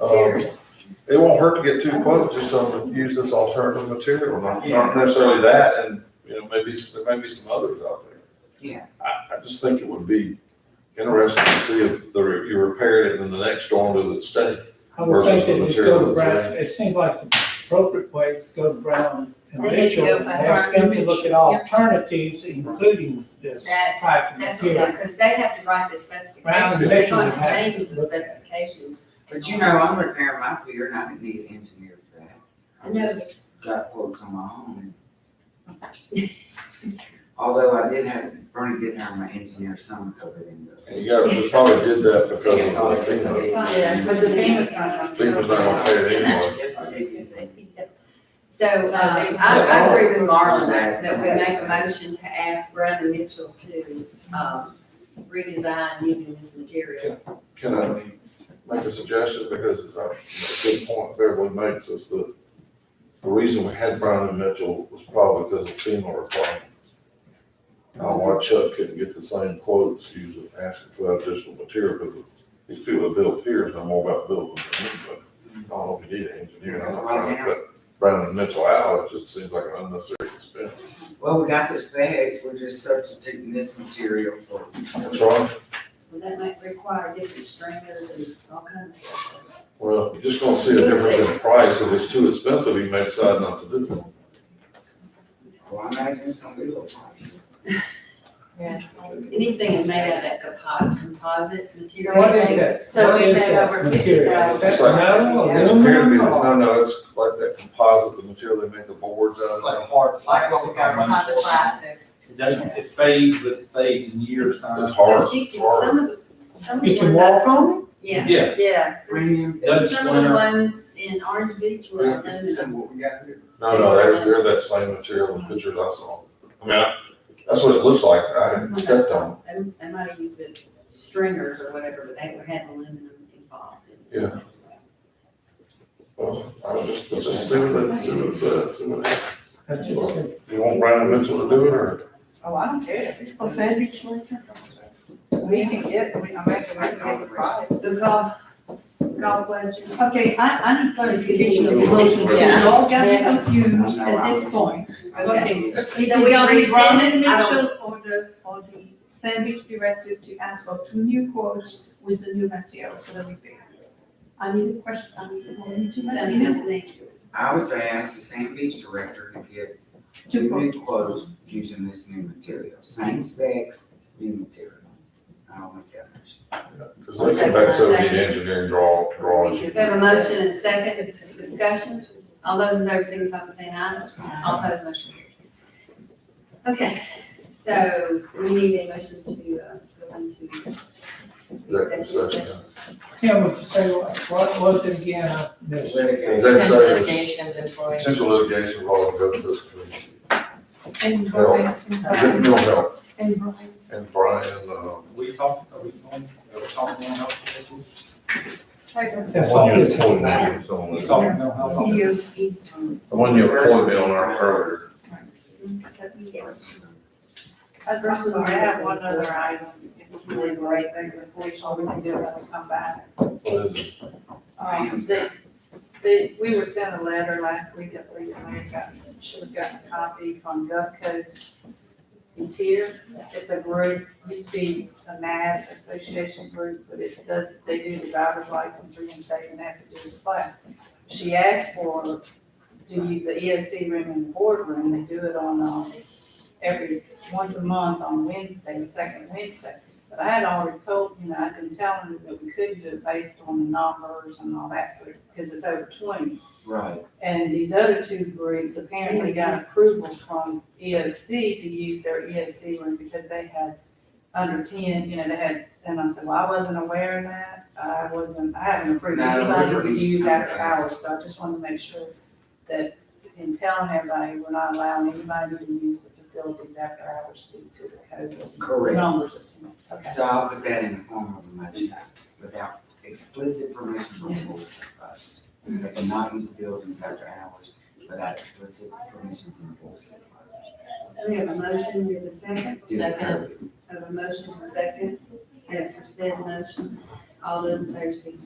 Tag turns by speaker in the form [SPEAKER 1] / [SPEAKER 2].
[SPEAKER 1] Um, It won't hurt to get two quotes, just on, use this alternative material, not, not necessarily that, and, you know, maybe, there may be some others out there.
[SPEAKER 2] Yeah.
[SPEAKER 1] I, I just think it would be interesting to see if the, re- you repaired it and then the next storm does it stay.
[SPEAKER 3] I would
[SPEAKER 1] Versus
[SPEAKER 3] think
[SPEAKER 1] the
[SPEAKER 3] they just go to
[SPEAKER 1] material
[SPEAKER 3] Brown,
[SPEAKER 1] that's
[SPEAKER 3] it seems like the appropriate way is to go to Brown and
[SPEAKER 2] They need to
[SPEAKER 3] Mitchell
[SPEAKER 2] go
[SPEAKER 3] and
[SPEAKER 2] by
[SPEAKER 3] ask
[SPEAKER 2] Brown
[SPEAKER 3] them
[SPEAKER 2] and
[SPEAKER 3] to look at
[SPEAKER 2] Mitchell, yeah.
[SPEAKER 3] alternatives, including this
[SPEAKER 2] That's-
[SPEAKER 3] type of
[SPEAKER 2] That's what, they
[SPEAKER 3] material.
[SPEAKER 2] because they have to write the
[SPEAKER 3] Brown
[SPEAKER 2] specifications,
[SPEAKER 3] and
[SPEAKER 2] they're
[SPEAKER 3] Mitchell would
[SPEAKER 2] gonna
[SPEAKER 3] have to
[SPEAKER 2] change the
[SPEAKER 3] look at.
[SPEAKER 2] specifications.
[SPEAKER 4] But you know, I'm repairing my food, you're not gonna need an engineer for that.
[SPEAKER 2] I
[SPEAKER 4] I
[SPEAKER 2] know.
[SPEAKER 4] just got folks on my own. Although I did have, Bernie did hire my engineer some because I didn't go.
[SPEAKER 1] And you got, we probably did that because of the FEMA.
[SPEAKER 2] Yeah, but the FEMA's not-
[SPEAKER 1] FEMA's not gonna pay it anymore.
[SPEAKER 4] Yes, I did use it.
[SPEAKER 2] So, um, I, I agree with Marlon that, that we make a motion to ask Brown and Mitchell to, um, redesign using this material.
[SPEAKER 1] Can I make a suggestion, because it's a good point everyone makes, is that the reason we had Brown and Mitchell was probably because of FEMA requirements. Now, why Chuck couldn't get the same quotes, using, asking for additional material, because these people that build piers know more about building than me, but I don't know if you need an engineer, I'm not trying to cut Brown and Mitchell out, it just seems like an unnecessary expense.
[SPEAKER 4] Well, we got this bag, we're just substituting this material for.
[SPEAKER 1] That's right,
[SPEAKER 2] Well, that might require different stringers and all kinds of stuff.
[SPEAKER 1] well, you're just gonna see a difference in price, if it's too expensive, you may decide not to do it.
[SPEAKER 4] Well, I imagine it's gonna be a little pricey.
[SPEAKER 2] Anything is made out of that compo- composite material.
[SPEAKER 3] What is that?
[SPEAKER 5] So
[SPEAKER 3] What
[SPEAKER 5] we
[SPEAKER 3] is
[SPEAKER 5] made
[SPEAKER 3] that
[SPEAKER 5] over
[SPEAKER 3] material? Is that
[SPEAKER 1] It's like-
[SPEAKER 3] metal,
[SPEAKER 1] It appeared to be,
[SPEAKER 3] aluminum,
[SPEAKER 1] it's,
[SPEAKER 3] or-
[SPEAKER 1] no, no, it's like that composite, the material they make the boards out
[SPEAKER 6] It's
[SPEAKER 1] of.
[SPEAKER 6] like a hard
[SPEAKER 4] Like
[SPEAKER 6] plastic.
[SPEAKER 4] what we got
[SPEAKER 6] on
[SPEAKER 4] behind
[SPEAKER 6] running
[SPEAKER 4] the
[SPEAKER 6] for-
[SPEAKER 4] plastic.
[SPEAKER 6] It doesn't, it fades, but it fades in years
[SPEAKER 1] It's
[SPEAKER 6] time.
[SPEAKER 1] hard,
[SPEAKER 2] But you
[SPEAKER 1] it's
[SPEAKER 2] can,
[SPEAKER 1] hard.
[SPEAKER 2] some of, the- some of the
[SPEAKER 3] You can
[SPEAKER 2] ones I-
[SPEAKER 3] walk on
[SPEAKER 2] Yeah.
[SPEAKER 6] Yeah,
[SPEAKER 5] Yeah,
[SPEAKER 4] Premium.
[SPEAKER 6] Doug
[SPEAKER 2] Some of the
[SPEAKER 6] Swinger.
[SPEAKER 2] ones in Orange Beach were aluminum.
[SPEAKER 4] what we got here.
[SPEAKER 1] No, no, they're, they're that same material in the pictures I saw. I mean, I- that's what it looks like, I
[SPEAKER 2] That's
[SPEAKER 1] didn't
[SPEAKER 2] what I
[SPEAKER 1] check
[SPEAKER 2] saw.
[SPEAKER 1] them.
[SPEAKER 2] They, they might have used the stringers or whatever, but they had aluminum involved. in it as well.
[SPEAKER 1] Well, I don't just, let's just see what it, see what it says, see what it-
[SPEAKER 3] them? That's just-
[SPEAKER 1] You want Brandon Mitchell to do it, or?
[SPEAKER 5] oh, I don't care.
[SPEAKER 2] Well, Sandwich Lantern.
[SPEAKER 5] We can get, I mean, I'm making, I can get the product.
[SPEAKER 2] The golf, golf question.
[SPEAKER 7] Okay, I, I'm clarification,
[SPEAKER 1] Yeah.
[SPEAKER 7] you all got me confused at this point. Okay,
[SPEAKER 2] So we already
[SPEAKER 7] Brown
[SPEAKER 2] said
[SPEAKER 7] and
[SPEAKER 2] it, I don't-
[SPEAKER 7] Mitchell or the, or the sandwich directive to ask for two new quotes with the new material for the repair. I need a question, I need, I need to let me know.
[SPEAKER 4] I was gonna ask the sand beach director to get
[SPEAKER 7] Two
[SPEAKER 4] two
[SPEAKER 7] quotes.
[SPEAKER 4] new quotes using this new material, same specs, new material. I don't make that much.
[SPEAKER 1] Cause they come back, so we need engineering draw, drawings.
[SPEAKER 2] We have a motion and a second discussion. All those in favor signify by saying aye. All opposed, motion carries. Okay, so we need a motion to, uh, go into
[SPEAKER 1] Executive
[SPEAKER 2] executive
[SPEAKER 1] session.
[SPEAKER 2] session.
[SPEAKER 3] Tim, would you say, what what was it again? I missed it.
[SPEAKER 1] Executive
[SPEAKER 5] Potential
[SPEAKER 1] session,
[SPEAKER 5] Litigation,
[SPEAKER 1] is
[SPEAKER 5] employee.
[SPEAKER 1] potential litigation, law, and government.
[SPEAKER 7] And
[SPEAKER 1] No.
[SPEAKER 7] Brian, and Brian,
[SPEAKER 1] Mental health,
[SPEAKER 7] and Brian.
[SPEAKER 1] and Brian, uh,
[SPEAKER 6] We talked, are we going, are we talking mental health? this week?
[SPEAKER 7] Try to-
[SPEAKER 3] That's all
[SPEAKER 1] One
[SPEAKER 3] it's
[SPEAKER 1] you appointed
[SPEAKER 3] about.
[SPEAKER 1] me, so
[SPEAKER 6] We
[SPEAKER 1] on
[SPEAKER 6] talked mental health.
[SPEAKER 7] See you, see.
[SPEAKER 1] the one you appointed me on our earlier.
[SPEAKER 7] Let me-
[SPEAKER 2] Yes.
[SPEAKER 5] I'm sorry, I have one other item. It was really great thing this week, so we can do it and come back.
[SPEAKER 1] What is it?
[SPEAKER 5] Um, they, they, we were sent a letter last week, I believe, and I got, should have gotten a copy from Gulf Coast Interior. It's a group, used to be a MAD association group, but it does, they do the driver's license reinstate and have to do the class. She asked for, to use the EOC room and boardroom, they do it on, um, every, once a month on Wednesday, the second Wednesday. But I had already told, you know, I've been telling them that we couldn't do it based on the numbers and all that, because it's over twenty.
[SPEAKER 4] Right.
[SPEAKER 5] And these other two groups apparently got approval from EOC to use their EOC room because they had under ten, you know, they had, and I said, well, I wasn't aware of that. I wasn't, I haven't approved
[SPEAKER 4] No,
[SPEAKER 5] anybody
[SPEAKER 4] we're-
[SPEAKER 5] who could use after
[SPEAKER 4] okay.
[SPEAKER 5] hours, so I just wanted to make sure that in telling everybody, we're not allowing anybody to use the facilities after hours due to the COVID
[SPEAKER 4] Correct.
[SPEAKER 5] numbers of too much. Okay.
[SPEAKER 4] So I'll put that in the form of a motion without explicit permission from the board of supervisors. They cannot use the buildings after hours without explicit permission from the board of supervisors.
[SPEAKER 2] We have a motion, we have a second.
[SPEAKER 4] Do the code.
[SPEAKER 2] Have a motion and a second. We have for said motion. All those in favor signify